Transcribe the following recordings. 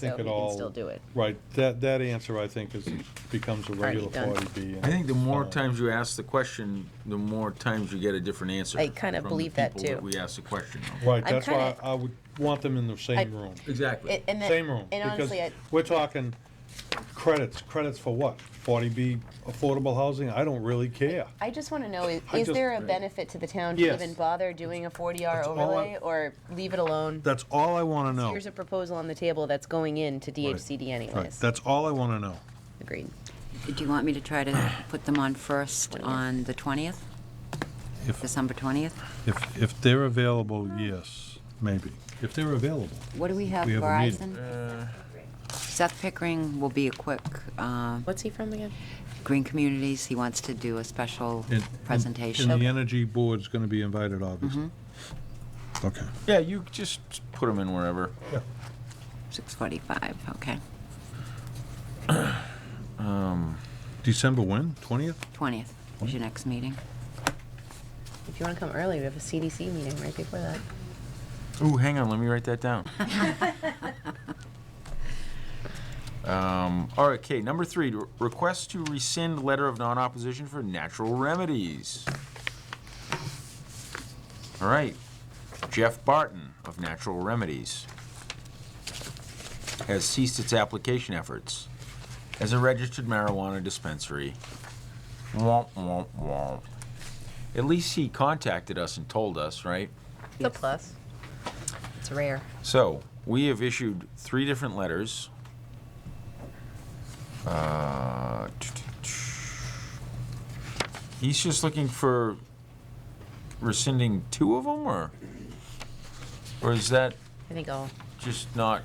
think So it we can all- still do it. Right, that, that answer, I think, is, becomes a Already regular done. forty B. I think the more times you ask the question, the more times you get a different answer. I kinda from the believe that people too. We ask the question. of. Right, I'm that's why kinda- I would want them in the same I- room, Exactly. It- and that- same room. And because honestly, I, We're talking credits, credits for what? Forty B affordable housing, I don't really care. I just want to know, is, I is just- there a benefit to the town to Yes. even bother doing a 40R That's all I- overlay or leave it alone? That's all I wanna know. Here's a proposal on the table that's going into DHCD Right, anyways. that's all I wanna know. Agreed. Do you want me to try to put them on first on the 20th? If- December 20th? If, if they're available, yes, maybe, if they're available. What do we have, We have a meeting. Verizon? Seth Pickering will be a quick, uh, What's he from again? Green Communities, he wants to do a special And- and- And the presentation. energy board's gonna be invited, obviously. Mm-hmm. Okay. Yeah, you just put them in wherever. 6:45, okay, December when, twentieth? 20th is your next meeting. If you want to come early, we have a CDC meeting right before that. Ooh, hang on, let me write that down. Um, all right, okay, number three, re- request to rescind letter of non-opposition for natural remedies. All right, Jeff Barton of Natural Remedies has ceased its application efforts as a registered marijuana dispensary. Womp, womp, womp. At least he contacted us and told us, right? It's a plus. It's rare. So, we have issued three different letters. Uh, He's just looking for rescinding two of them, or? Or is that I think all. just not?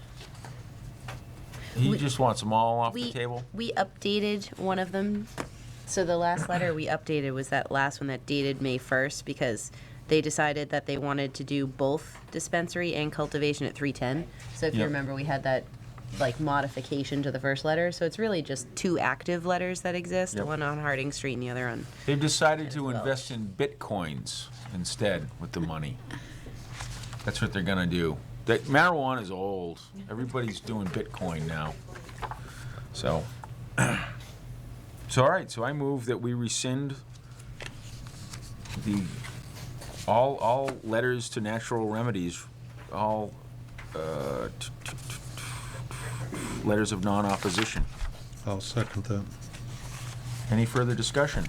He We- just wants them all off the We- table? We updated one of them. So the last letter we updated was that last one that dated May 1st because they decided that they wanted to do both dispensary and cultivation at 310. So if you Yep. remember, we had that like modification to the first letter. So it's really just two active letters that exist, Yep. one on Harding Street and the other on They've decided to well. invest in bitcoins instead with the money. That's what they're gonna do. That marijuana is old. Everybody's doing bitcoin now. So, so all right. So I move that we rescind the all all letters to natural remedies, all uh, t- t- t- t- letters of non-opposition. I'll second that. Any further discussion?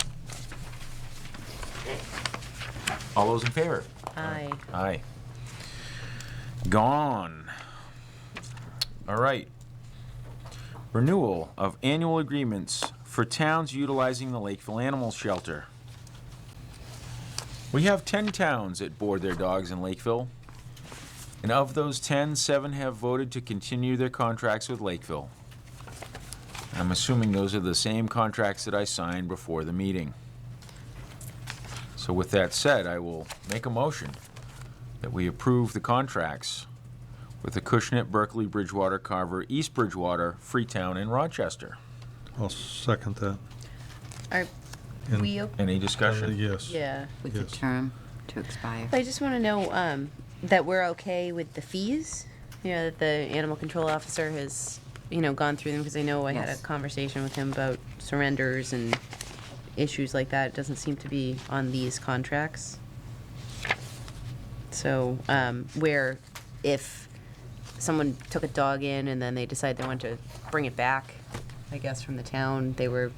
All those in favor? I. Aye. Gone. All right. Renewal of annual agreements for towns utilizing the Lakeville Animal Shelter. We have 10 towns that board their dogs in Lakeville. And of those 10, seven have voted to continue their contracts with Lakeville. I'm assuming those are the same contracts that I signed before the meeting. So with that said, I will make a motion that we approve the contracts with the Cushnet, Berkeley, Bridgewater, Carver, East Bridgewater, Freetown, and Rochester. I'll second that. Are And- we okay? Any Uh, discussion? Yes. Yeah. With the Yes. term to expire. I just want to know um, that we're okay with the fees. You know that the animal control officer has, you know, gone through them because I know I had a Yes. conversation with him about surrenders and issues like that. It doesn't seem to be on these contracts. So um, where, if someone took a dog in and then they decide they want to bring it back, I guess from the town, they were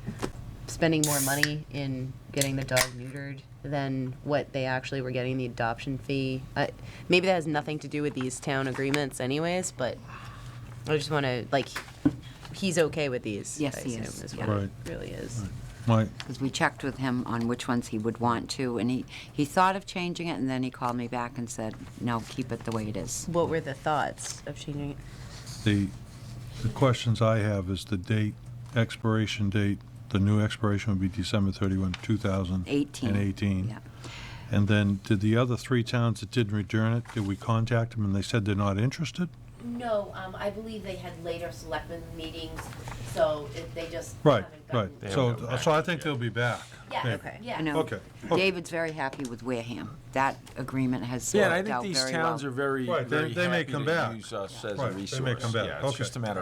spending more money in getting the dog neutered than what they actually were getting the adoption fee. Uh, maybe that has nothing to do with these town agreements, anyways. But I just want to like, he's okay with these. Yes, I he assume, is, Is yeah. what Right. it really is. My, Because we checked with him on which ones he would want to, and he, he thought of changing it, and then he called me back and said, no, keep it the way it is. What were the thoughts of changing it? the, the questions I have is the date, expiration date, the new expiration would be December thirty-one, two thousand. 18. And eighteen. Yeah. And then, did the other three towns that didn't return it, did we contact them and they said they're not interested? No, um, I believe they had later selectmen meetings, so it- they just. Right, haven't right, gotten- so, so I think they'll be back. Yeah, maybe. Okay. yeah. I know. Okay. David's very happy with Wareham. That agreement has Yeah, and I worked think out these very towns well. are very, Right, they- very they may happy come to back. use us as a Right, they may resource. come back, Yeah, it's okay. just a matter